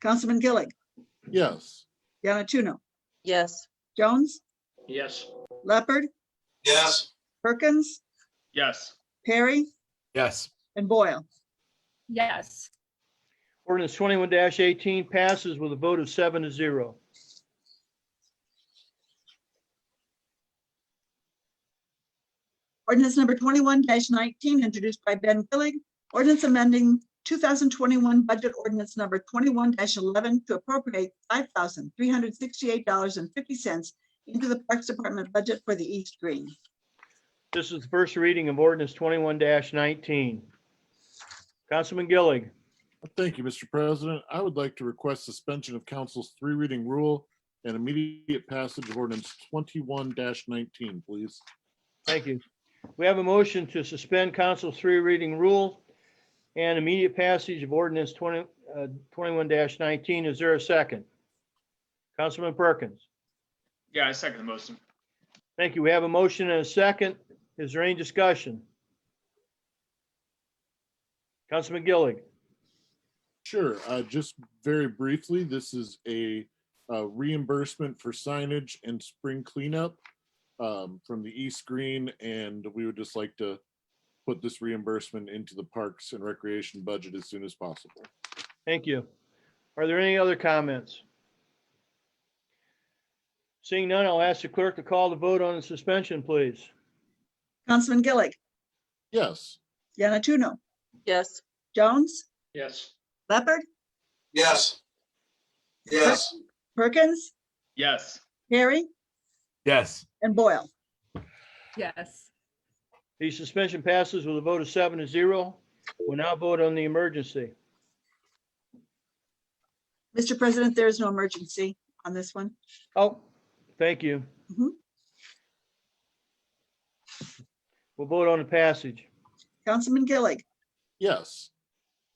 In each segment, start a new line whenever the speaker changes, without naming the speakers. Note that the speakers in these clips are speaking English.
Councilman Gillig,
Yes.
Yanatuno,
yes,
Jones,
Yes.
Leopard,
Yes.
Perkins,
Yes.
Perry,
yes,
and Boyle.
yes,
Ordinance twenty-one eighteen passes with a vote of seven to zero.
Ordinance number twenty-one nineteen, introduced by Ben Gillig. Ordinance amending two thousand twenty-one budget ordinance number twenty-one eleven to appropriate five thousand three hundred sixty-eight dollars and fifty cents into the Parks Department budget for the East Green.
This is the first reading of ordinance twenty-one nineteen. Councilman Gillig,
Thank you, Mr. President. I would like to request suspension of council's three reading rule and immediate passage of ordinance twenty-one nineteen, please.
thank you. We have a motion to suspend council's three reading rule and immediate passage of ordinance twenty, uh, twenty-one nineteen. Is there a second? Councilman Perkins,
Yeah, I second the motion.
thank you. We have a motion and a second. Is there any discussion? Councilman Gillig.
Sure, uh, just very briefly, this is a uh, reimbursement for signage and spring cleanup um, from the East Green, and we would just like to put this reimbursement into the Parks and Recreation budget as soon as possible.
Thank you. Are there any other comments? Seeing none, I'll ask the clerk to call the vote on the suspension, please.
Councilman Gillig,
Yes,
Yanatuno,
yes,
Jones,
Yes.
Leopard,
Yes. Yes.
Perkins,
Yes.
Perry,
yes.
and Boyle.
yes.
The suspension passes with a vote of seven to zero. We'll now vote on the emergency.
Mr. President, there is no emergency on this one.
Oh, thank you.
Mhm.
We'll vote on the passage.
Councilman Gillig,
yes.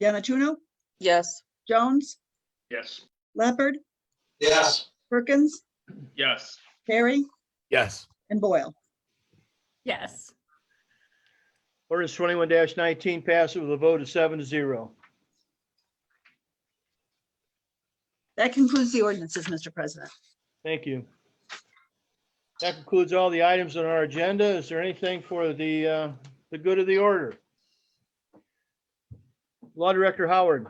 Yanatuno,
yes,
Jones,
Yes.
Leopard,
Yes.
Perkins,
Yes.
Perry,
Yes,
and Boyle.
Yes.
Ordinance twenty-one nineteen passes with a vote of seven to zero.
That concludes the ordinances, Mr. President.
Thank you. That concludes all the items on our agenda. Is there anything for the, uh, the good of the order? Law Director Howard,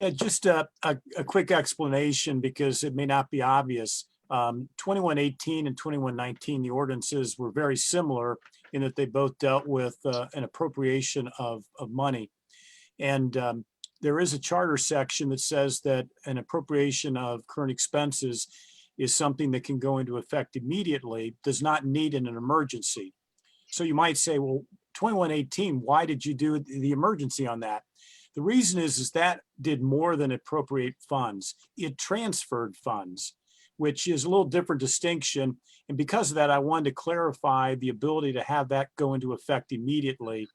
Yeah, just a, a, a quick explanation because it may not be obvious. Um, twenty-one eighteen and twenty-one nineteen, the ordinances were very similar in that they both dealt with, uh, an appropriation of, of money. And, um, there is a charter section that says that an appropriation of current expenses is something that can go into effect immediately, does not need in an emergency. So you might say, well, twenty-one eighteen, why did you do the the emergency on that? The reason is, is that did more than appropriate funds. It transferred funds, which is a little different distinction. And because of that, I wanted to clarify the ability to have that go into effect immediately.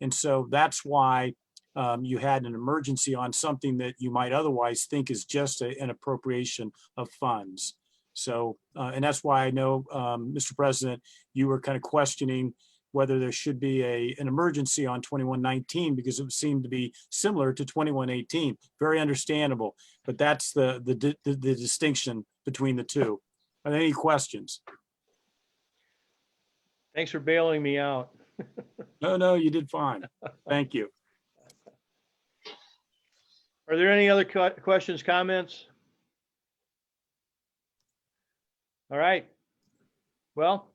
And so that's why um, you had an emergency on something that you might otherwise think is just a- an appropriation of funds. So, uh, and that's why I know, um, Mr. President, you were kind of questioning whether there should be a, an emergency on 2119 because it seemed to be similar to 2118. Very understandable, but that's the, the, di- the the distinction between the two. Are there any questions?
thanks for bailing me out.
No, no, you did fine. Thank you.
Are there any other que- questions, comments? All right. Well,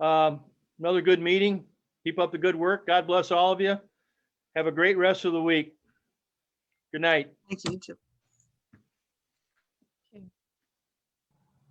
um, another good meeting. Keep up the good work. God bless all of you. Have a great rest of the week. Good night.
Thank you, you too.